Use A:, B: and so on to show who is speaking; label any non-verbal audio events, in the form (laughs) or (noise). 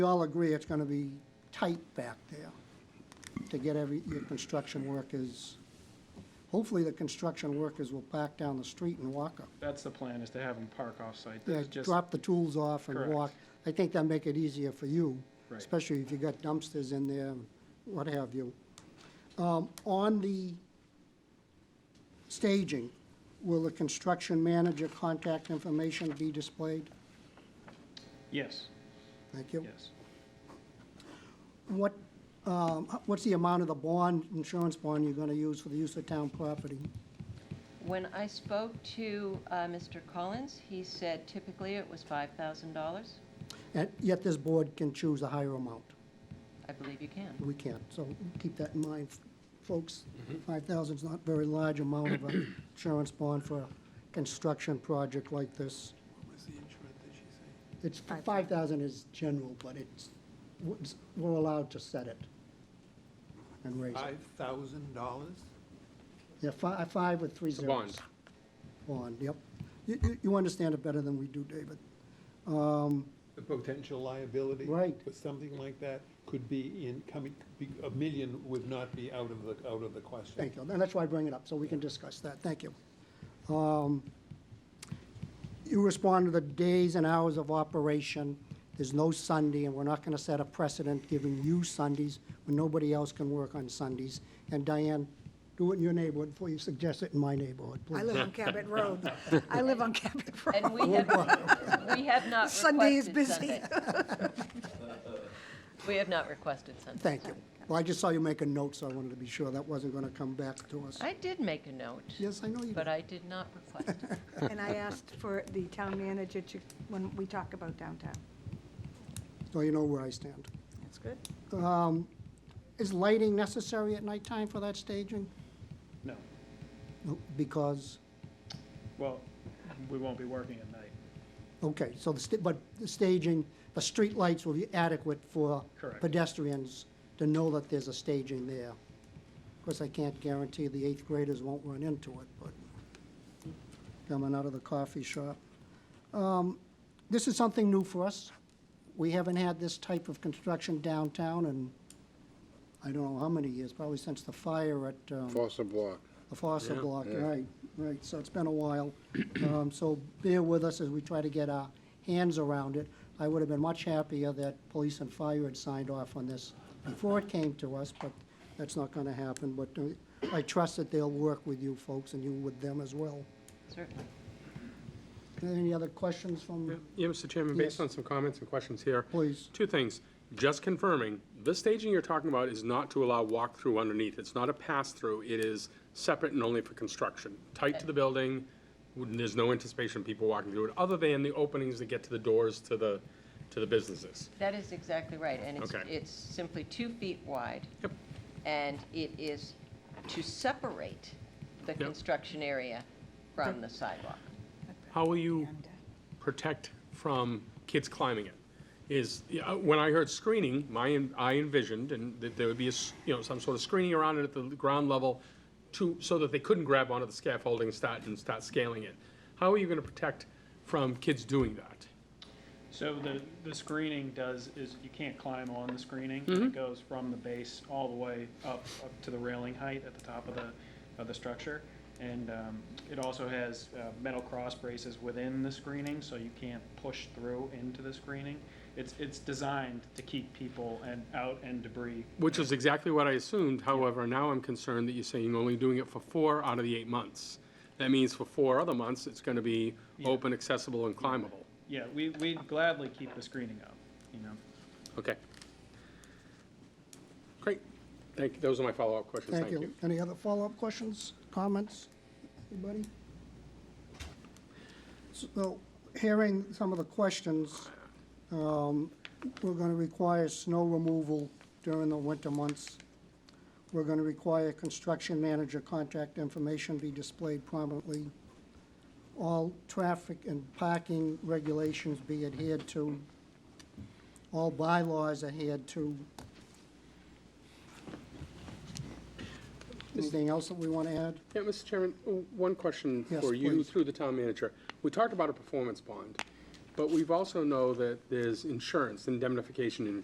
A: We all agree it's gonna be tight back there to get every, your construction workers. Hopefully, the construction workers will back down the street and walk up.
B: That's the plan, is to have them park off-site.
A: Yeah,
B: That's just,
A: drop the tools off and
B: Correct.
A: walk. I think that'll make it easier for you,
B: Right.
A: especially if you got dumpsters in there, and what have you. Um, on the staging, will the construction manager contact information be displayed?
B: yes,
A: Thank you.
B: yes.
A: What, um, h- what's the amount of the bond, insurance bond you're gonna use for the use of town property?
C: When I spoke to uh, Mr. Collins, he said typically it was $5,000.
A: And yet this board can choose a higher amount.
C: I believe you can.
A: We can't, so keep that in mind, folks. Five thousand's not a very large amount of an insurance bond for a construction project like this. It's, five thousand is general, but it's, it's- we're allowed to set it and raise it.
D: Five thousand dollars?
A: Yeah, five, five with three
E: The
A: zeros. Bond,
E: bond.
A: yep. You, you, you understand it better than we do, David.
D: The potential liability?
A: Right.
D: With something like that could be in, coming, be- a million would not be out of the, out of the question.
A: Thank you, and that's why I bring it up, so we can discuss that, thank you. Um, You respond to the days and hours of operation, there's no Sunday, and we're not gonna set a precedent giving you Sundays when nobody else can work on Sundays. And Diane, do it in your neighborhood before you suggest it in my neighborhood, please.
F: I live on Cabot Road. I live on Cabot
C: And
F: Road.
C: we
A: Oh,
C: have, we have
A: (laughs)
C: not requested
F: Sunday is busy.
C: Sunday. We have not requested Sunday.
A: Thank you. Well, I just saw you make a note, so I wanted to be sure that wasn't gonna come back to us.
C: I did make a note,
A: Yes, I know you
C: but
A: did.
C: I did not request
A: (laughs)
C: it.
F: And I asked for the town manager to, when we talk about downtown.
A: So you know where I stand. Um,
F: That's good.
A: Is lighting necessary at nighttime for that staging?
B: No,
A: No, Because
B: well, we won't be working at night,
A: Okay, so the, sta- but the staging, the street lights will be adequate for
B: Correct.
A: pedestrians to know that there's a staging there. Of course, I can't guarantee the eighth graders won't run into it, but coming out of the coffee shop. Um, This is something new for us. We haven't had this type of construction downtown in, I don't know how many years, probably since the fire at, um,
E: Fossa Block.
A: the Fossa block,
E: yeah.
A: right, right, so it's been a while. Um, So bear with us as we try to get our hands around it. I would have been much happier that police and fire had signed off on this before it came to us, but that's not gonna happen. But uh, I trust that they'll work with you folks and you with them as well.
C: Certainly.
A: Any other questions from,
E: Yeah, Mr. Chairman,
A: Yes.
E: based on some comments and questions here.
A: Please.
E: Two things. Just confirming, the staging you're talking about is not to allow walk-through underneath. It's not a pass-through. It is separate and only for construction. Tight to the building, wouldn't- there's no anticipation of people walking through it, other than the openings that get to the doors to the, to the businesses.
C: That is exactly right, and it's,
E: Okay.
C: it's simply two feet wide.
E: Yep.
C: And it is to separate the construction area from the sidewalk.
E: How will you protect from kids climbing it? Is, yeah, uh, when I heard screening, my, I envisioned and that there would be, a s- you know, some sort of screening around it at the ground level to, so that they couldn't grab onto the scaffolding and start, and start scaling it. How are you gonna protect from kids doing that?
B: So the, the screening does, is you can't climb on the screening. It goes from the base all the way up, up to the railing height at the top of the, of the structure. And um, it also has uh, metal cross braces within the screening, so you can't push through into the screening. It's, it's designed to keep people and out and debris.
E: Which is exactly what I assumed, however, now I'm concerned that you're saying you're only doing it for four out of the eight months. That means for four other months, it's gonna be open, accessible, and climbable.
B: Yeah, we, we'd gladly keep the screening up, you know?
E: Okay. Great. Thank, those are my follow-up questions.
A: thank you. Any other follow-up questions, comments, anybody? So, hearing some of the questions, um, we're gonna require snow removal during the winter months. We're gonna require construction manager contact information be displayed prominently. All traffic and parking regulations be adhered to. All bylaws adhered to. Anything else that we wanna add?
E: Yeah, Mr. Chairman, o- one question
A: Yes,
E: for you
A: please.
E: through the town manager. We talked about a performance bond. But we've also know that there's insurance, indemnification and